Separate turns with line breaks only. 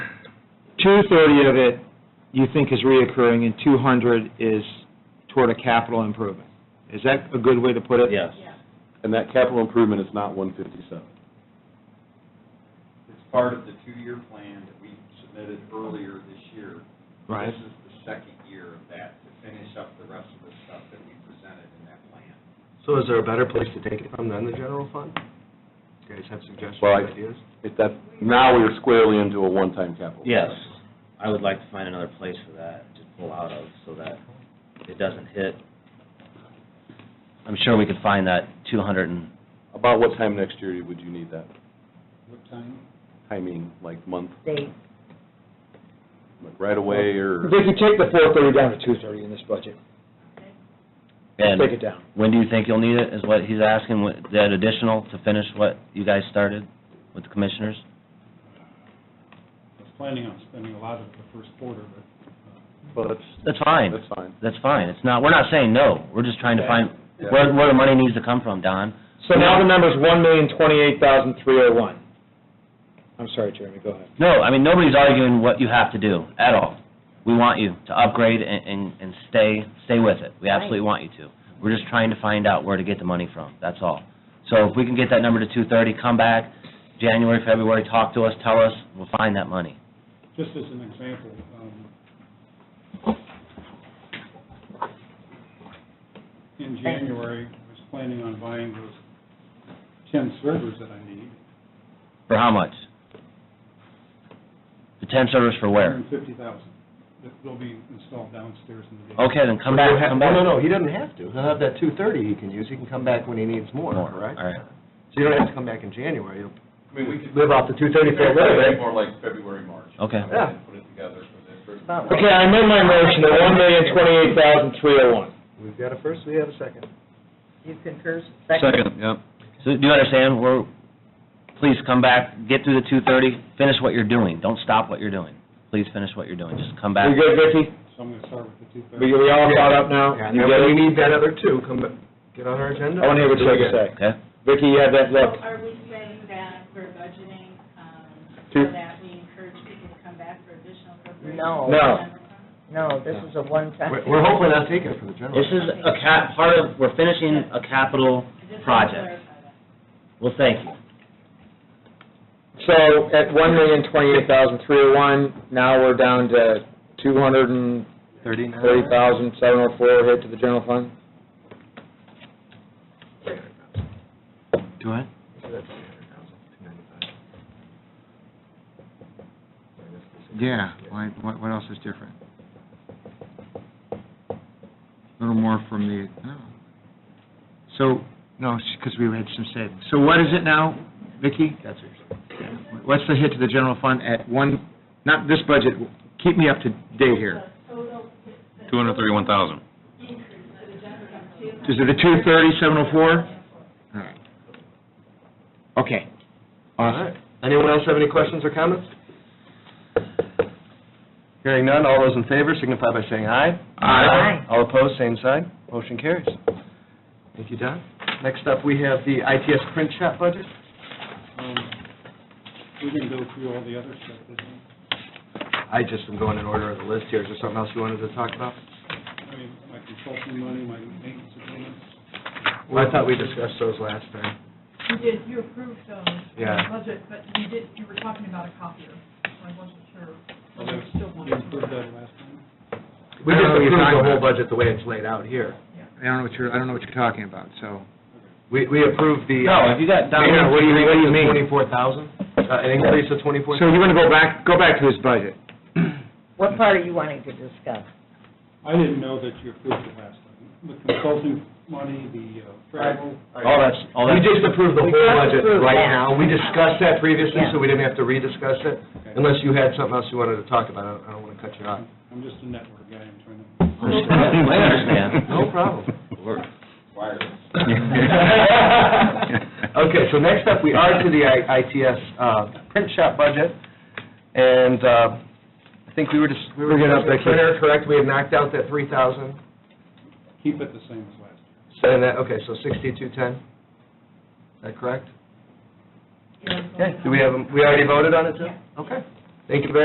230 of it you think is reoccurring, and 200 is toward a capital improvement. Is that a good way to put it?
Yes.
And that capital improvement is not one fifty-seven.
It's part of the two-year plan that we submitted earlier this year.
Right.
This is the second year of that, to finish up the rest of the stuff that we presented in that plan.
So is there a better place to take it from than the general fund? You guys have suggestions,
Well, I-
ideas?
If that, now we are squarely into a one-time capital.
Yes, I would like to find another place for that to pull out of so that it doesn't hit. I'm sure we could find that two hundred and,
About what time next year would you need that?
What time?
Timing, like month,
They,
like right away, or?
They can take the 430 down to 230 in this budget.
and
Take it down.
when do you think you'll need it, is what he's asking, what- that additional to finish what you guys started with the commissioners?
I was planning on spending a lot of the first quarter, but
Well,
uh,
that's,
That's fine,
that's fine.
that's fine, it's not, we're not saying no, we're just trying to find where, where the money needs to come from, Don.
So now the number's 1,028,301. I'm sorry, Jeremy, go ahead.
No, I mean, nobody's arguing what you have to do at all. We want you to upgrade and, and, and stay, stay with it. We absolutely want you to. We're just trying to find out where to get the money from, that's all. So if we can get that number to two thirty, come back, January, February, talk to us, tell us, we'll find that money.
just as an example, um, in January, I was planning on buying those 10 servers that I need,
For how much? The ten servers for where?
150,000, that will be installed downstairs in the
Mm.
basement.
Okay, then come back, come back.
No, no, no, he doesn't have to. He'll have that two thirty he can use. He can come back when he needs more,
More,
right?
all right.
So you don't have to come back in January. You'll
I mean, we could.
live off the two thirty for a little bit.
More like February, March.
Okay.
Yeah.
Put it together for the first.
About right.
Okay, I amend my motion to 1,028,301.
We've got a first, we have a second.
you concur,
Second, yep. So do you understand, we're, please come back, get through the two thirty, finish what you're doing, don't stop what you're doing. Please finish what you're doing, just come back.
We good, Vicki?
So I'm going to start with the
We
230.
we all caught up now?
Yeah, and
You
then
get
when
it?
we need that other two, come back, get on our
I
agenda.
want to hear what you have to say.
Okay?
Vicki, you have that
So
look.
are we saying that we're budgeting, um,
Two.
so that we encourage people to come back for additional appropriations?
No. no,
No.
this is a one-time.
We're, we're hopefully not taking it from the general.
This is a cap, part of, we're finishing a capital
I just want to
project.
clarify that.
Well, thank you.
So at one million twenty-eight thousand three oh one, now we're down to two hundred and
Thirty-nine.
thirty thousand seven oh four hit to the general fund?
Go ahead.
Yeah, why, what, what else is different? A little more from the, no. So, no, because we had some savings. So what is it now, Vicki?
That's what you're saying.
What's the hit to the general fund at one, not this budget, keep me up to date here.
Two hundred thirty-one thousand.
Is it the two thirty, seven oh four? All right. Okay.
All right. Anyone else have any questions or comments? Hearing none, all those in favor signify by saying aye.
Aye.
All opposed, same sign. Motion carries. Thank you, Don. Next up, we have the ITS print shop budget.
Um, We can go through all the other stuff, isn't it?
I just am going in order of the list here. Is there something else you wanted to talk about?
I mean, my consulting money, my maintenance agreements.
Well, I thought we discussed those last time.
You did, you approved those.
Yeah.
Budget, but you did, you were talking about a copier, so I wasn't sure.
Well, that-
Still
You
wanted to-
approved that last time?
We
I
just approved
don't know what you're
the
talking
whole
about.
budget the way it's laid out here.
I don't know what you're, I don't know what you're talking about, so.
We, we approved the.
No, if you got down-
Mayor, what do you, what do you mean?
mean?
Twenty-four thousand? uh, An increase of twenty-four?
So you're gonna go back, go back to this budget?
What part are you wanting to discuss?
I didn't know that you approved it last time. The consulting money, the uh, travel,
All that's, all
We
that's.
just approved the
We
whole
just
budget
approved
right
that.
now. We discussed that previously,
Yeah.
so we didn't have to rediscuss it, unless you had something else you wanted to talk about. I don't- I don't want to cut you off.
I'm just a network guy, I'm trying to...
I understand.
No problem.
Wireless.
Okay, so next up, we are to the I- ITS uh, print shop budget, and uh, I think we were just, we were
Bring it
getting
up,
up the
Becky.
printer, correct? We had knocked out that three thousand,
Keep it the same as last year.
and that, okay, so sixty-two ten, is that correct?
Yeah, so-
Okay, do we have, a- we already voted on it, too? Okay, thank you very